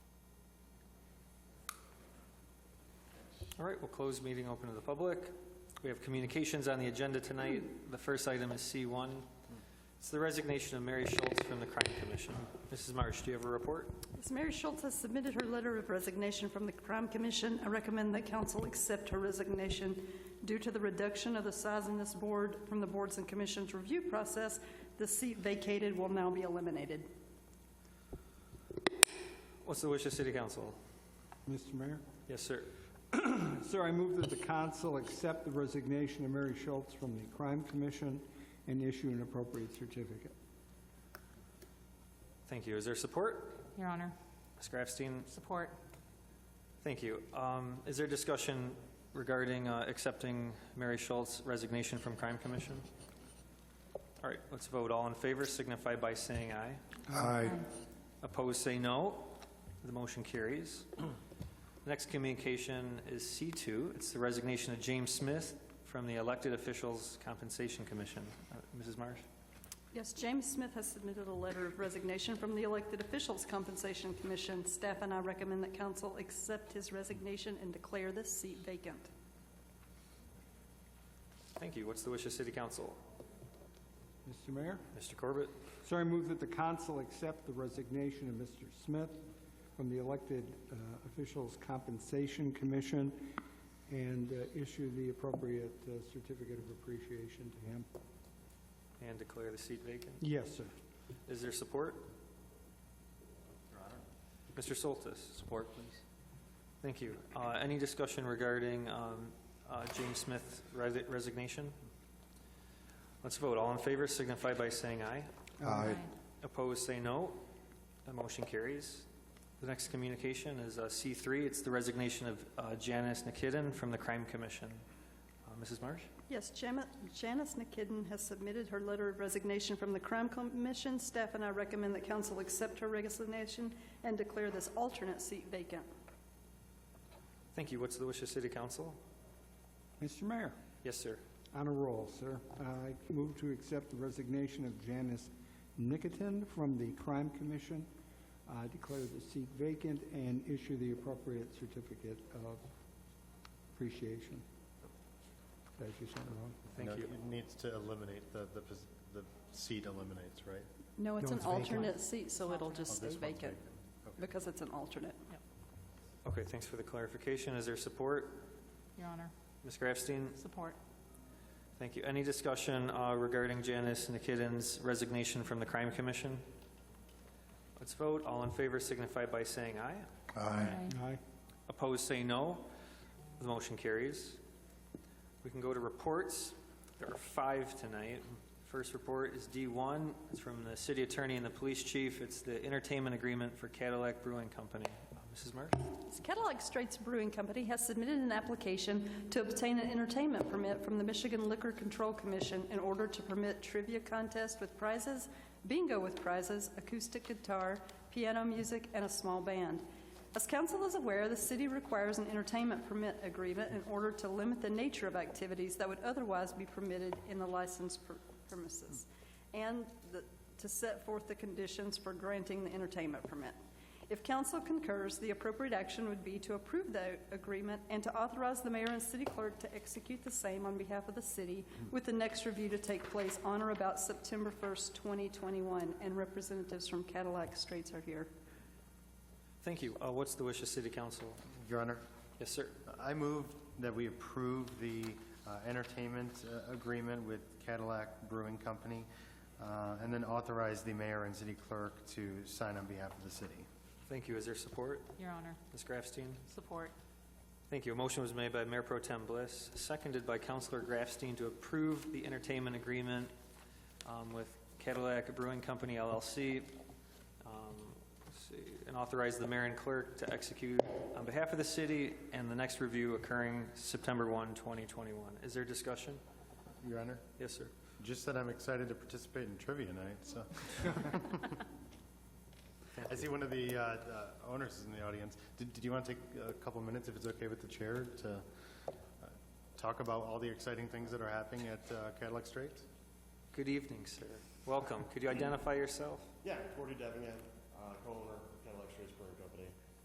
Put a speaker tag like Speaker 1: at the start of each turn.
Speaker 1: All right, we'll close meeting, open to the public. We have communications on the agenda tonight. The first item is C1. It's the resignation of Mary Schultz from the Crime Commission. Mrs. Marsh, do you have a report?
Speaker 2: Ms. Mary Schultz has submitted her letter of resignation from the Crime Commission. I recommend that council accept her resignation. Due to the reduction of the size in this board from the boards and commissions review process, the seat vacated will now be eliminated.
Speaker 1: What's the wish of City Council?
Speaker 3: Mr. Mayor?
Speaker 1: Yes, sir.
Speaker 3: Sir, I move that the council accept the resignation of Mary Schultz from the Crime Commission and issue an appropriate certificate.
Speaker 1: Thank you. Is there support?
Speaker 4: Your Honor,
Speaker 1: Ms. Grafstein?
Speaker 4: support.
Speaker 1: Thank you. Um, Is there discussion regarding uh, accepting Mary Schultz's resignation from Crime Commission? All right, let's vote. All in favor signify by saying aye.
Speaker 3: Aye.
Speaker 1: Opposed, say no. The motion carries. Next communication is C2. It's the resignation of James Smith from the Elected Officials Compensation Commission. Uh, Mrs. Marsh?
Speaker 2: Yes, James Smith has submitted a letter of resignation from the Elected Officials Compensation Commission. Staff and I recommend that council accept his resignation and declare this seat vacant.
Speaker 1: Thank you. What's the wish of City Council?
Speaker 3: Mr. Mayor?
Speaker 1: Mr. Corbett?
Speaker 3: Sir, I move that the council accept the resignation of Mr. Smith from the Elected uh, Officials Compensation Commission and uh, issue the appropriate uh, certificate of appreciation to him.
Speaker 1: And declare the seat vacant.
Speaker 3: Yes, sir.
Speaker 1: Is there support? Mr. Soltis? Support, please. Thank you. Uh, Any discussion regarding um, uh, James Smith's resi- resignation? Let's vote. All in favor signify by saying aye.
Speaker 3: Uh,
Speaker 4: Aye.
Speaker 1: Opposed, say no. The motion carries. The next communication is uh, C3. It's the resignation of uh, Janice Nikitin from the Crime Commission. Uh, Mrs. Marsh?
Speaker 2: Yes, Jam- Janice Nikitin has submitted her letter of resignation from the Crime Commission. Staff and I recommend that council accept her resignation and declare this alternate seat vacant.
Speaker 1: Thank you. What's the wish of City Council?
Speaker 3: Mr. Mayor?
Speaker 1: Yes, sir.
Speaker 3: On a roll, sir. I move to accept the resignation of Janice Nikitin from the Crime Commission, uh, declare the seat vacant, and issue the appropriate certificate of appreciation. Did I do something wrong?
Speaker 1: Thank
Speaker 5: No,
Speaker 1: you.
Speaker 5: It needs to eliminate, the, the, pos- the seat eliminates, right?
Speaker 2: No, it's
Speaker 3: No,
Speaker 2: an
Speaker 3: it's vacant.
Speaker 2: alternate seat, so it'll
Speaker 5: Oh,
Speaker 2: just stay
Speaker 5: this one's
Speaker 2: vacant
Speaker 5: Okay.
Speaker 2: because it's an alternate.
Speaker 1: Okay, thanks for the clarification. Is there support?
Speaker 4: Your Honor,
Speaker 1: Ms. Grafstein?
Speaker 4: support.
Speaker 1: Thank you. Any discussion uh, regarding Janice Nikitin's resignation from the Crime Commission? Let's vote. All in favor signify by saying aye.
Speaker 4: Aye.
Speaker 3: Aye.
Speaker 1: Opposed, say no. The motion carries. We can go to reports. There are five tonight. First report is D1. It's from the city attorney and the police chief. It's the entertainment agreement for Cadillac Brewing Company. Uh, Mrs. Marsh?
Speaker 2: Cadillac Straits Brewing Company has submitted an application to obtain an entertainment permit from the Michigan Liquor Control Commission in order to permit trivia contest with prizes, bingo with prizes, acoustic guitar, piano music, and a small band. As council is aware, the city requires an entertainment permit agreement in order to limit the nature of activities that would otherwise be permitted in the licensed per- premises, and the- to set forth the conditions for granting the entertainment permit. If council concurs, the appropriate action would be to approve the agreement and to authorize the mayor and city clerk to execute the same on behalf of the city, with the next review to take place on or about September 1st, 2021, and representatives from Cadillac Straits are here.
Speaker 1: Thank you. Uh, What's the wish of city council?
Speaker 5: Your Honor,
Speaker 1: Yes, sir.
Speaker 5: I move that we approve the uh, entertainment uh, agreement with Cadillac Brewing Company, uh, and then authorize the mayor and city clerk to sign on behalf of the city.
Speaker 1: Thank you. Is there support?
Speaker 4: Your Honor,
Speaker 1: Ms. Grafstein?
Speaker 4: support.
Speaker 1: Thank you. A motion was made by Mayor Pro Tem Bliss, seconded by Councilor Grafstein to approve the entertainment agreement um, with Cadillac Brewing Company LLC, um, let's see, and authorize the mayor and clerk to execute on behalf of the city, and the next review occurring September 1, 2021. Is there discussion?
Speaker 5: Your Honor,
Speaker 1: Yes, sir.
Speaker 5: just that I'm excited to participate in trivia night, so. I see one of the uh, uh, owners is in the audience. Did did you want to take a couple minutes, if it's okay with the chair, to uh, talk about all the exciting things that are happening at uh, Cadillac Straits?
Speaker 1: Good evening, sir. Welcome. Could you identify yourself?
Speaker 6: Yeah, Cordy Devingan, uh, co-owner